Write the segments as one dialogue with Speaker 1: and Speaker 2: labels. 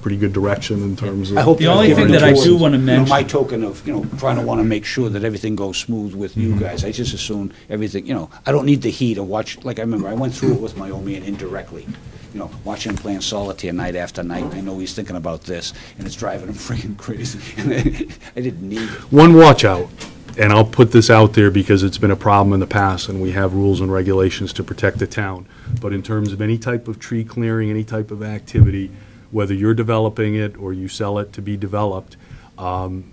Speaker 1: pretty good direction in terms of.
Speaker 2: I hope
Speaker 3: The only
Speaker 2: you're
Speaker 3: thing
Speaker 2: giving
Speaker 3: that I
Speaker 2: towards,
Speaker 3: do wanna
Speaker 2: you know,
Speaker 3: mention-
Speaker 2: My token of, you know, trying to want to make sure that everything goes smooth with you guys. I just assume everything, you know, I don't need the heat or watch, like I remember, I went through it with my old man indirectly. You know, watching him playing solitaire night after night. I know he's thinking about this and it's driving him freaking crazy. And I didn't need it.
Speaker 1: One watch out, and I'll put this out there because it's been a problem in the past, and we have rules and regulations to protect the town. But in terms of any type of tree clearing, any type of activity, whether you're developing it or you sell it to be developed, um,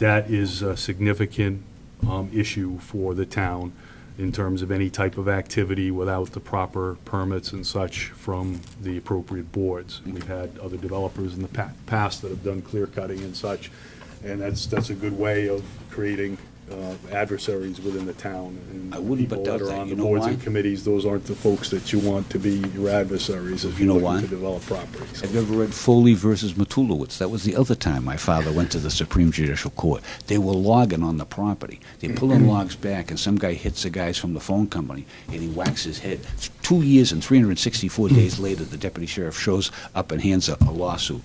Speaker 1: that is a significant um, issue for the town in terms of any type of activity without the proper permits and such from the appropriate boards. And We've had other developers in the pa- past that have done clear cutting and such, and that's, that's a good way of creating uh, adversaries within the town. and
Speaker 2: I wouldn't but
Speaker 1: people
Speaker 2: doubt that.
Speaker 1: are on
Speaker 2: You
Speaker 1: the
Speaker 2: know
Speaker 1: boards and
Speaker 2: why?
Speaker 1: committees, those aren't the folks that you want to be your adversaries if
Speaker 2: You
Speaker 1: you're
Speaker 2: know
Speaker 1: looking
Speaker 2: why?
Speaker 1: to develop properties.
Speaker 2: Have you ever read Foley versus Matulowicz? That was the other time my father went to the Supreme Judicial Court. They were logging on the property. They're pulling logs back, and some guy hits the guys from the phone company, and he whacks his head. Two years and 364 days later, the deputy sheriff shows up and hands a, a lawsuit.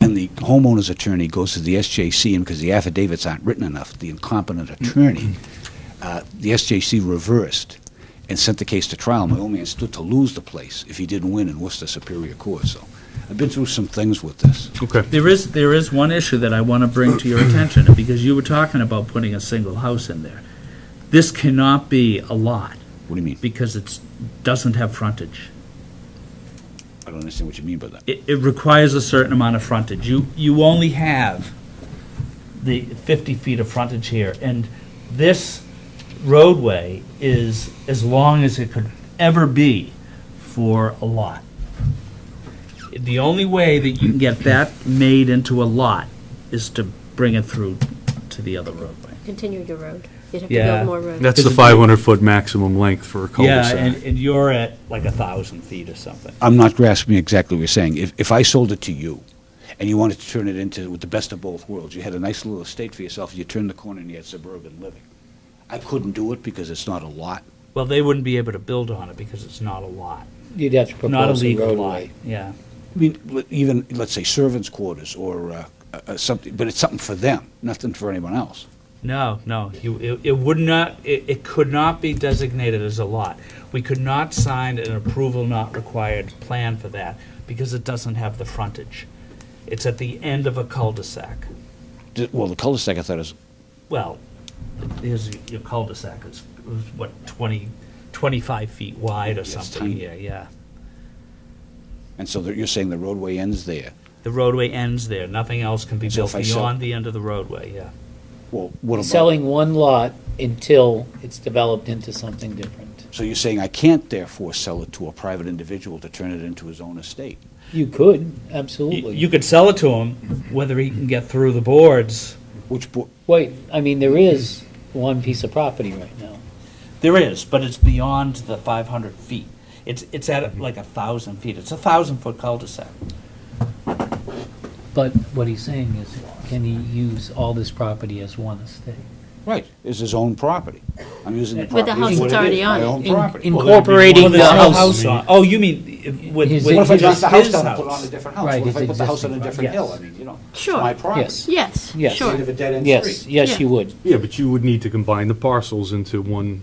Speaker 2: And the homeowner's attorney goes to the SJC, and because the affidavits aren't written enough, the incompetent attorney, uh, the SJC reversed and sent the case to trial. My old man stood to lose the place if he didn't win in Worcester Superior Court. So I've been through some things with this.
Speaker 1: Okay.
Speaker 3: It
Speaker 4: There is, there is one issue that I want to bring to your attention, because you were talking about putting a single house in there. This cannot be a lot,
Speaker 2: What do you mean?
Speaker 4: because it's, doesn't have frontage.
Speaker 2: I don't understand what you mean by that.
Speaker 4: It, it requires a certain amount of frontage. You, you only have the 50 feet of frontage here, and this roadway is as long as it could ever be for a lot. The only way that you can get that made into a lot is to bring it through to the other roadway.
Speaker 5: continue your road. You'd have to
Speaker 4: Yeah.
Speaker 5: build more road.
Speaker 1: That's the
Speaker 4: Because-
Speaker 1: 500-foot maximum length for a
Speaker 4: Yeah,
Speaker 1: cul-de-sac.
Speaker 4: and, and you're at like a 1,000 feet or something.
Speaker 2: I'm not grasping exactly what you're saying. If, if I sold it to you and you wanted to turn it into with the best of both worlds, you had a nice little estate for yourself, you turned the corner and you had suburban living. I couldn't do it because it's not a lot.
Speaker 4: Well, they wouldn't be able to build on it because it's not a lot,
Speaker 6: You'd have to
Speaker 4: not a
Speaker 6: propose a
Speaker 4: legal lot,
Speaker 6: roadway.
Speaker 4: yeah.
Speaker 2: I mean, l- even, let's say, servants' quarters or uh, uh, uh, something, but it's something for them, nothing for anyone else.
Speaker 4: No, no, you, it, it would not, it, it could not be designated as a lot. We could not sign an approval not required plan for that because it doesn't have the frontage. It's at the end of a cul-de-sac.
Speaker 2: D- Well, the cul-de-sac, I thought, is
Speaker 4: Well, here's your- your cul-de-sac is, is what, 20, 25 feet wide or
Speaker 2: Yes,
Speaker 4: something,
Speaker 2: tiny.
Speaker 4: yeah, yeah.
Speaker 2: And so there- you're saying the roadway ends there.
Speaker 4: The roadway ends there, nothing else can be
Speaker 2: So
Speaker 4: built
Speaker 2: if I sell-
Speaker 4: beyond the end of the roadway, yeah.
Speaker 2: Well, what about?
Speaker 6: Selling one lot until it's developed into something different.
Speaker 2: So you're saying I can't therefore sell it to a private individual to turn it into his own estate?
Speaker 6: You could,
Speaker 4: You
Speaker 6: absolutely.
Speaker 4: you could sell it to him, whether he can get through the boards,
Speaker 2: Which, bo-
Speaker 6: Wait, I mean, there is one piece of property right now.
Speaker 4: There is, but it's beyond the 500 feet. It's, it's at like a 1,000 feet. It's a 1,000-foot cul-de-sac.
Speaker 6: But what he's saying is, can he use all this property as one estate?
Speaker 2: right, is his own property. I'm using the
Speaker 5: With the
Speaker 2: property.
Speaker 5: house
Speaker 2: as what
Speaker 5: that's
Speaker 2: it is,
Speaker 5: already on
Speaker 2: My
Speaker 5: it.
Speaker 2: own
Speaker 6: In-
Speaker 2: property.
Speaker 4: Well, there'd be more
Speaker 6: Incorporating
Speaker 4: than
Speaker 6: the
Speaker 4: a
Speaker 6: house.
Speaker 4: on- Oh, you mean uh, with
Speaker 6: His
Speaker 4: with
Speaker 2: What if I
Speaker 6: It's
Speaker 2: drop
Speaker 4: his
Speaker 2: the house down and put on a
Speaker 4: house?
Speaker 2: different house?
Speaker 6: Right,
Speaker 2: What if I
Speaker 6: it's
Speaker 2: put the house on a different
Speaker 6: existing, yes.
Speaker 2: hill? I mean, you know, it's
Speaker 5: Sure.
Speaker 2: my property.
Speaker 6: Yes.
Speaker 5: Yes,
Speaker 6: Yes.
Speaker 5: sure.
Speaker 2: It's a dead-end
Speaker 6: Yes,
Speaker 2: street.
Speaker 6: yes, you would.
Speaker 1: Yeah, but you would need to combine the parcels into one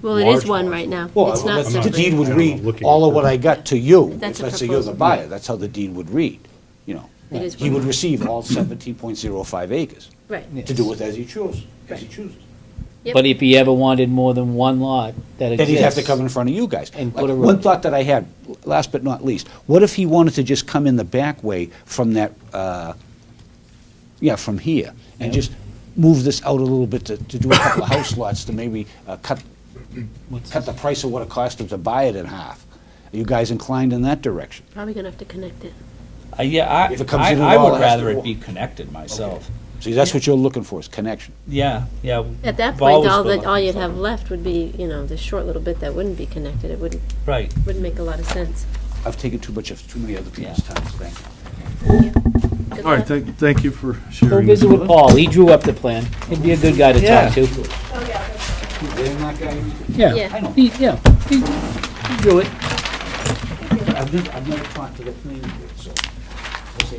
Speaker 5: Well, it is
Speaker 1: large
Speaker 5: one
Speaker 1: one.
Speaker 5: right now.
Speaker 2: Well,
Speaker 5: It's not
Speaker 2: that's- the deed
Speaker 5: separate.
Speaker 2: would
Speaker 1: I don't know,
Speaker 2: read,
Speaker 1: looking
Speaker 2: all
Speaker 1: at
Speaker 2: of what I got to you,
Speaker 5: That's a
Speaker 2: let's say you're the
Speaker 5: proposal.
Speaker 2: buyer, that's how the deed would read, you know.
Speaker 5: It is
Speaker 2: He
Speaker 5: one
Speaker 2: would
Speaker 5: lot.
Speaker 2: receive all 17.05 acres
Speaker 5: Right.
Speaker 2: to do with as he chose, as he
Speaker 5: Right.
Speaker 2: chooses.
Speaker 5: Yep.
Speaker 6: But if he ever wanted more than one lot that
Speaker 2: Then
Speaker 6: exists.
Speaker 2: he'd have to come in front of you guys.
Speaker 6: And
Speaker 2: Like,
Speaker 6: put a
Speaker 2: One
Speaker 6: road.
Speaker 2: thought that I had, l- last but not least, what if he wanted to just come in the back way from that, uh, yeah, from here, and
Speaker 6: Yeah.
Speaker 2: just move this out a little bit to, to do a couple of house lots to maybe uh, cut,
Speaker 6: What's
Speaker 2: cut the price of what it cost him to buy it in half? Are you guys inclined in that direction?
Speaker 5: Probably gonna have to connect it.
Speaker 4: Uh, Yeah, I,
Speaker 2: If it comes
Speaker 4: I
Speaker 2: in at
Speaker 4: I
Speaker 2: all,
Speaker 4: would
Speaker 2: it has to
Speaker 4: rather it
Speaker 2: walk.
Speaker 4: be connected myself.
Speaker 2: See, that's what you're looking for, is connection.
Speaker 4: Yeah, yeah.
Speaker 5: At that
Speaker 4: I've
Speaker 5: point,
Speaker 4: always
Speaker 5: all
Speaker 4: been
Speaker 5: that, all
Speaker 4: looking
Speaker 5: you'd
Speaker 4: for
Speaker 5: have
Speaker 4: it.
Speaker 5: left would be, you know, the short little bit that wouldn't be connected. It wouldn't,
Speaker 4: Right.
Speaker 5: wouldn't make a lot of sense.
Speaker 2: I've taken too much of, too many other people's
Speaker 4: Yeah.
Speaker 2: time, thank you.
Speaker 5: Good
Speaker 1: All right,
Speaker 5: luck.
Speaker 1: thank, thank you for
Speaker 6: Go
Speaker 1: sharing.
Speaker 6: visit
Speaker 1: this
Speaker 6: with Paul. He drew up the plan. He'd be a good guy to
Speaker 4: Yeah.
Speaker 6: talk to.
Speaker 2: Damn that guy. I
Speaker 6: Yeah,
Speaker 2: know.
Speaker 6: he, yeah, he he drew it.
Speaker 2: I've never, I've never talked to the planning board, so.